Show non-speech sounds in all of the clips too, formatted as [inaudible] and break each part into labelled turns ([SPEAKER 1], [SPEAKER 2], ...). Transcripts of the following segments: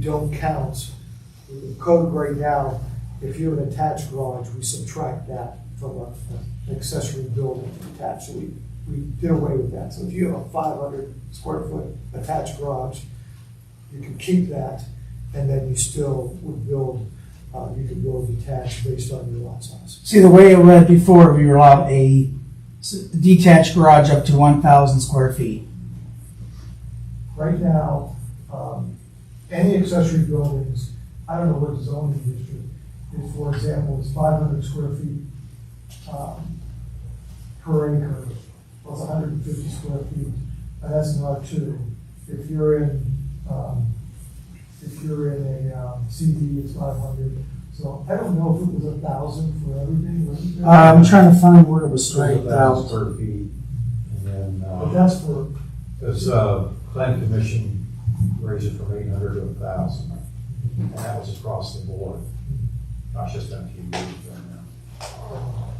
[SPEAKER 1] don't count. The code right now, if you're an attached garage, we subtract that from a- an accessory building attached. So we, we did away with that. So if you have a five hundred square foot attached garage, you can keep that, and then you still would build, uh, you could build detached based on your lot size.
[SPEAKER 2] See, the way it read before, we were allowed a s- detached garage up to one thousand square feet.
[SPEAKER 1] Right now, um, any accessory buildings, I don't know what the zoning district is, for example, it's five hundred square feet, um, per acre, plus hundred and fifty square feet, and that's an R two. If you're in, um, if you're in a, um, CD, it's five hundred, so I don't know if it was a thousand for everything, wasn't there?
[SPEAKER 2] Uh, I'm trying to find where it was
[SPEAKER 3] Three
[SPEAKER 2] straight
[SPEAKER 3] thousand
[SPEAKER 2] out.
[SPEAKER 3] square feet, and then,
[SPEAKER 1] But
[SPEAKER 3] uh,
[SPEAKER 1] that's for,
[SPEAKER 3] this, uh, plan commission raised it from eight hundred to a thousand, and that was across the board. Not just MTV, but, uh,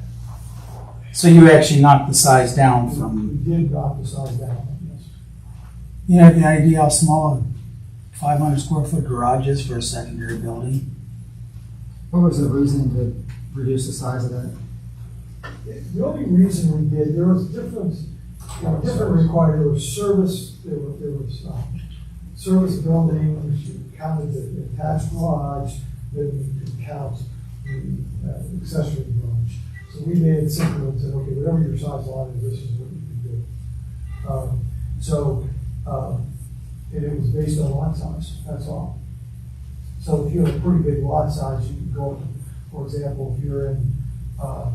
[SPEAKER 2] So you actually knocked the size down
[SPEAKER 1] we
[SPEAKER 2] from,
[SPEAKER 1] did drop the size down, yes.
[SPEAKER 2] you know, the idea how small a five hundred square foot garage is for a secondary building.
[SPEAKER 4] What was the reason to reduce the size of that?
[SPEAKER 1] The only reason we did, there was different, you know, different required, there was service, there was, there was, uh, service building, which you counted the attached garage, then you could count the uh, accessory garage. So we made it simple and said, okay, whatever your size lot is, this is what you can do. Um, So, um, and it was based on lot size, that's all. So if you have a pretty big lot size, you can go, for example, if you're in, uh,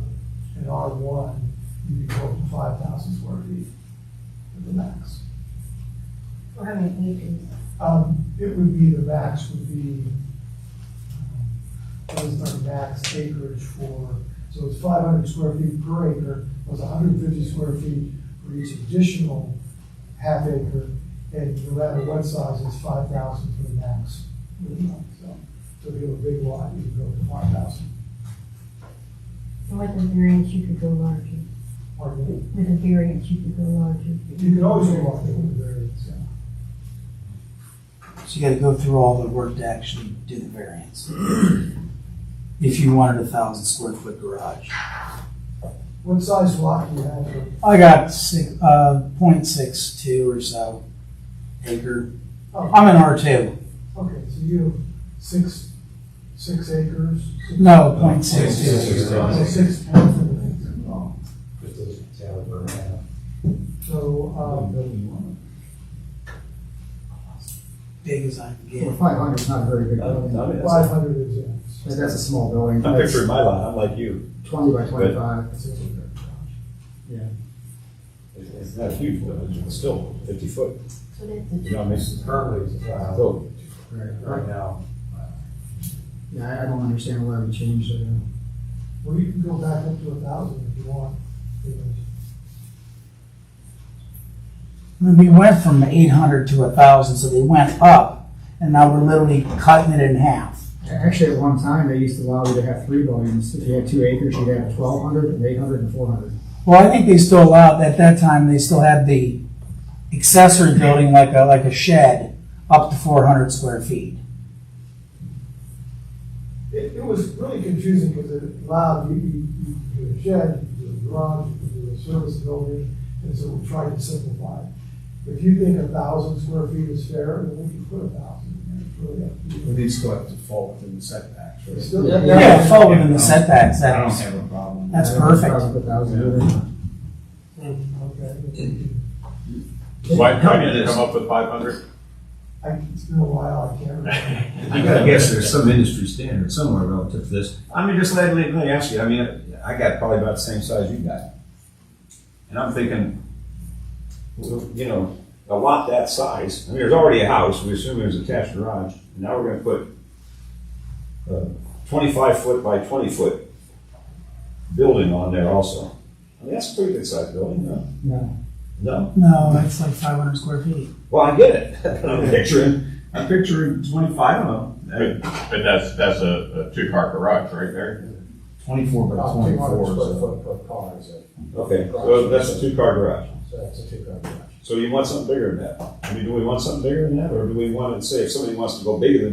[SPEAKER 1] an R one, you can go up to five thousand square feet at the max.
[SPEAKER 5] Or how many acres?
[SPEAKER 1] Um, it would be, the max would be, um, what is the max acreage for, so it's five hundred square feet per acre, plus hundred and fifty square feet for each additional half acre, and no matter what size, it's five thousand for the max. So, so if you have a big lot, you can go up to five thousand,
[SPEAKER 5] And With a variance, you could go larger.
[SPEAKER 1] or maybe
[SPEAKER 5] With a variance, you could go larger.
[SPEAKER 1] You can always go up to the variance, yeah.
[SPEAKER 2] So you gotta go through all the work to actually do the variance. [clears throat] If you wanted a thousand square foot garage.
[SPEAKER 1] What size lot do you have? for-
[SPEAKER 2] I got six, uh, point six two or so acre.
[SPEAKER 1] Oh,
[SPEAKER 2] I'm in R two.
[SPEAKER 1] okay, so you have six, six acres? six-
[SPEAKER 2] No, point six
[SPEAKER 3] Point six.
[SPEAKER 2] two.
[SPEAKER 1] Oh, Six points of it. Oh,
[SPEAKER 3] uh, just a tower per half.
[SPEAKER 1] So, um,
[SPEAKER 2] Big as I can
[SPEAKER 4] Well,
[SPEAKER 2] get.
[SPEAKER 4] five hundred is not a very big
[SPEAKER 6] Oh,
[SPEAKER 4] building.
[SPEAKER 1] five hundred is, yeah.
[SPEAKER 4] But That's a small building.
[SPEAKER 6] I'm
[SPEAKER 4] That's
[SPEAKER 6] picturing my lot, I'm like you.
[SPEAKER 4] Twenty by twenty-five.
[SPEAKER 1] That's it.
[SPEAKER 4] Yeah.
[SPEAKER 6] It's it's not huge, but it's still fifty foot.
[SPEAKER 5] So that's a
[SPEAKER 6] You know, what I mean,
[SPEAKER 3] Currently, it's a thousand,
[SPEAKER 6] so
[SPEAKER 3] right now,
[SPEAKER 4] Yeah, I- I don't understand why we changed it.
[SPEAKER 1] Well, you can go back up to a thousand if you want. you know.
[SPEAKER 2] We went from eight hundred to a thousand, so they went up, and now we're literally cutting it in half.
[SPEAKER 4] A- Actually, at one time, they used to allow you to have three buildings. If you had two acres, you'd have twelve hundred and eight hundred and four hundred.
[SPEAKER 2] Well, I think they still allowed, at that time, they still had the accessory building like a, like a shed up to four hundred square feet.
[SPEAKER 1] It, it was really confusing because it allowed, you, you, you could do a shed, you could do a garage, you could do a service building, and so we tried to simplify it. If you think a thousand square feet is fair, then we can put a thousand, it's really up to you.
[SPEAKER 7] Well, These still have to fall within the setbacks,
[SPEAKER 1] It's
[SPEAKER 7] right?
[SPEAKER 1] still-
[SPEAKER 4] Yeah,
[SPEAKER 2] Yeah, it fell within the setbacks,
[SPEAKER 7] I don't
[SPEAKER 2] that's,
[SPEAKER 7] have a problem.
[SPEAKER 2] That's
[SPEAKER 4] I don't
[SPEAKER 2] perfect.
[SPEAKER 4] know, probably put thousands in there.
[SPEAKER 1] Okay.
[SPEAKER 6] why, why did you come up with five hundred?
[SPEAKER 1] I, it's been a while, I can't remember.
[SPEAKER 7] I gotta guess there's some industry standard somewhere relative to this. I mean, just let, let let me ask you, I mean, I got probably about the same size you got. And I'm thinking, well, you know, a lot that size, I mean, there's already a house, we assume there's attached garage, and now we're gonna put a twenty-five foot by twenty foot building on there also. I mean, that's a pretty good sized building, no?
[SPEAKER 4] No.
[SPEAKER 7] No?
[SPEAKER 2] no, that's like five hundred square feet.
[SPEAKER 7] Well, I get it. But I'm picturing, I'm picturing twenty-five of them. Uh,
[SPEAKER 6] But that's, that's a, a two-car garage right there.
[SPEAKER 7] Twenty-four by
[SPEAKER 3] About two
[SPEAKER 7] Oh, twenty-four.
[SPEAKER 3] hundred square
[SPEAKER 7] so-
[SPEAKER 3] foot per car, is it?
[SPEAKER 6] Okay, so that's a two-car garage.
[SPEAKER 3] So that's a two-car garage.
[SPEAKER 6] So you want something bigger than that? I mean, do we want something bigger than that, or do we want to say if somebody wants to go bigger than that?